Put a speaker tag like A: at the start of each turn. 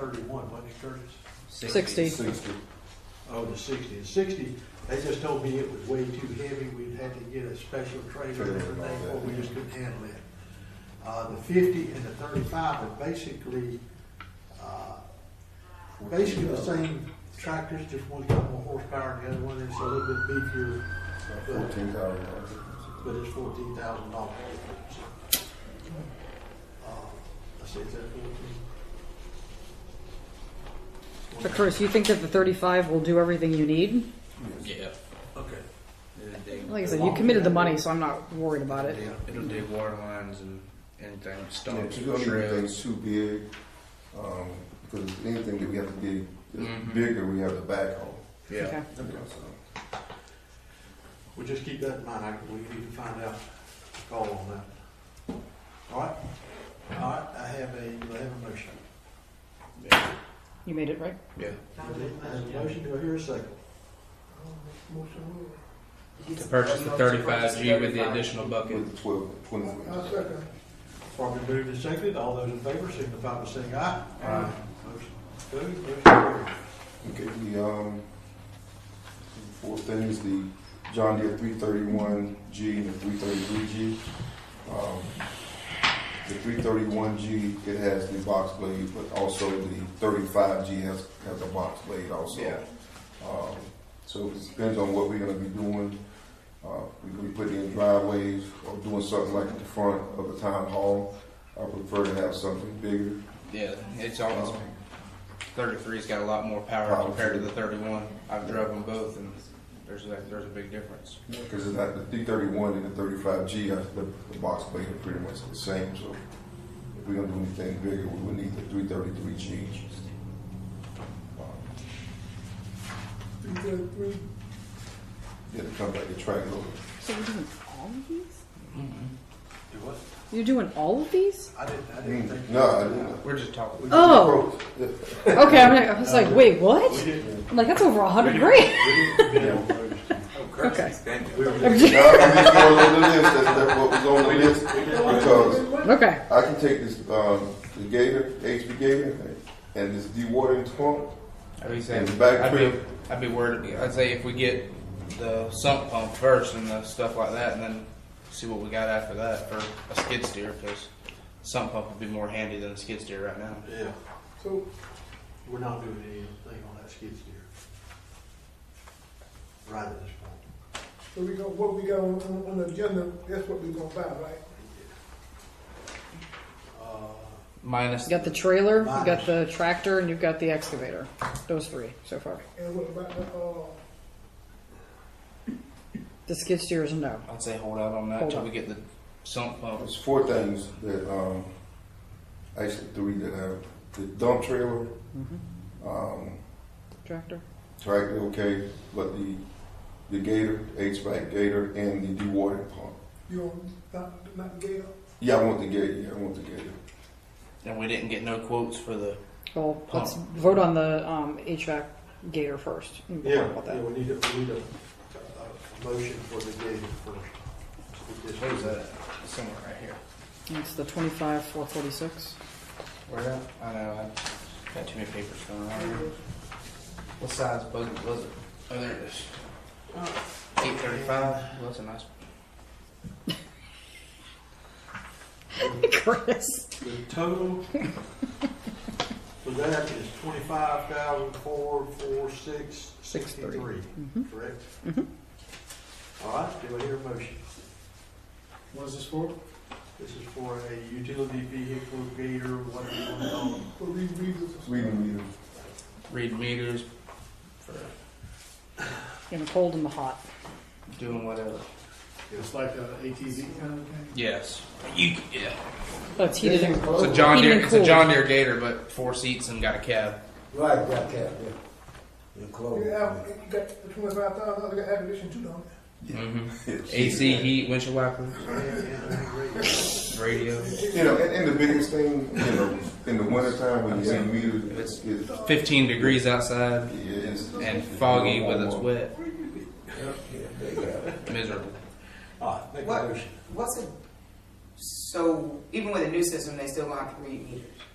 A: thirty-one, wasn't it, Curtis?
B: Sixty.
C: Sixty.
A: Oh, the sixty. The sixty, they just told me it was way too heavy, we'd had to get a special trailer
C: Trailer
A: and
C: and
A: everything,
C: all
A: or
C: that.
A: we just couldn't handle it. Uh, the fifty and the thirty-five are basically, uh, basically the same tractors, just one's got more horsepower and the other one is a little bit beefier,
C: Fourteen thousand.
A: but it's fourteen thousand dollars. Uh, I said, is that fourteen?
B: But Chris, you think that the thirty-five will do everything you need?
D: Yeah,
A: Okay.
D: it'll dig,
B: Like I said, you committed the money, so I'm not worried about it.
A: Yeah.
D: it'll dig water lines and anything,
C: Yeah,
D: stumps,
C: to do anything
D: shrubs.
C: too big, um, because anything that we have to dig
D: Mhm.
C: is bigger, we have to back on.
D: Yeah,
B: Mm-hmm. Okay.
C: You know, so.
A: We'll just keep that in mind, I- we need to find out, call on that. All right, all right, I have a, I have a motion.
D: yeah,
B: You made it, right?
D: yeah.
A: I have a motion, do I hear a second?
D: To purchase the thirty-five G with the additional bucket.
C: With the twelve, twenty-four.
A: Properly moved and seconded, all those in favor signify by saying aye. Aye. Motion approved, motion carried.
C: Okay, the, um, four things, the John Deere three thirty-one G and the three thirty-three G. Um, The three thirty-one G, it has the box blade, but also the thirty-five G has, has a box blade also.
D: Yeah.
C: Um, so it depends on what we're gonna be doing. Uh, we could be putting in driveways or doing something like at the front of the town hall. I prefer to have something bigger. Um,
D: Yeah, it's almost, thirty-three's got a lot more power
C: Oh. Power.
D: compared to the thirty-one. I've drove them both and there's a, there's a big difference.
C: Because it's not the D thirty-one and the thirty-five G, the, the box blade are pretty much the same, so if we're gonna do anything bigger, we would need the three thirty-three G. Yeah, to come back and track it over.
B: So you're doing all of these?
A: Do what?
B: You're doing all of these?
A: I didn't, I didn't think.
C: Mm, No, I didn't.
D: We're just talking.
B: Oh, okay. I'm like, I was like, wait, what?
A: We didn't.
B: I'm like, that's over a hundred grand.
A: We didn't bid on those.
B: Okay.
A: We were just-
B: Okay.
C: No, I'm just going on the list, that's, that's what was on the list, because
B: Okay.
C: I can take this, um, the Gator, HB Gator, and this dewatering pump,
D: I'd be saying,
C: In the back
D: I'd be,
C: crib.
D: I'd be worried. I'd say if we get the sump pump first and the stuff like that, and then see what we got after that for a skid steer, because sump pump would be more handy than a skid steer right now.
A: Yeah,
C: So,
A: we're not doing anything on that skid steer. Right at this point.
E: So we going what we got on, on, on the agenda, that's what we gonna buy, right?
A: Uh,
D: Minus
B: You got the trailer, you got the tractor, and you've got the excavator. Those three so far.
E: And what about the, uh,
B: The skid steer is a no.
D: I'd say hold out on that
B: Hold
D: till
B: on.
D: we get the sump pump.
C: There's four things that, um, actually three that have, the dump trailer,
A: Mm-hmm.
C: um,
B: Tractor.
C: tractor, okay, but the, the gator, HVAC gator, and the dewatering pump.
E: you on, not, not Gator?
C: Yeah, I want the gator, yeah, I want the gator.
D: And we didn't get no quotes for the.
B: Well, let's vote on the um, HVAC gator first. and we'll
A: Yeah,
B: talk about
A: yeah,
B: that.
A: we need a, we need a, a motion for the gated first.
D: What is that? Somewhere right here.
B: And It's the twenty-five four forty-six.
D: Where that? I know. I got too many papers going around. What size bucket was it? Oh, there it is.
B: Oh.
D: Eight thirty-five. Well, that's a nice.
B: Chris.
A: The total for that is twenty-five thousand, four, four, six,
B: Six, three.
A: sixty-three,
B: Mhm.
A: correct?
B: Mhm.
A: All right, do I hear a motion?
E: What is this for?
A: This is for a utility vehicle gator, whatever you want to call it.
E: For these reasons.
C: Reading meter,
D: Read meters for
B: In the cold and the hot.
D: doing whatever.
F: It's like an ATV kind of thing.
D: Yes. You, yeah.
B: But it's heated and
D: It's a John
B: Heated
D: Deere.
B: and
D: It's a
B: cooled.
D: John Deere Gator, but four seats and got a cab.
G: Right, got that, yeah. Your clothes.
E: You have, you got the twenty-five thousand, dollars. you got acquisition too, don't
D: hmm AC, heat, windshield wipers, radio.
C: you know, and, and the biggest thing, you know, in the wintertime when you see meters, it's, it's,
D: Fifteen degrees outside
C: yeah, it's.
D: and foggy with it's wet. Miserable.
A: All right, make a
H: What?
A: motion.
H: What's a, so even with a new system, they still gonna have to read meters?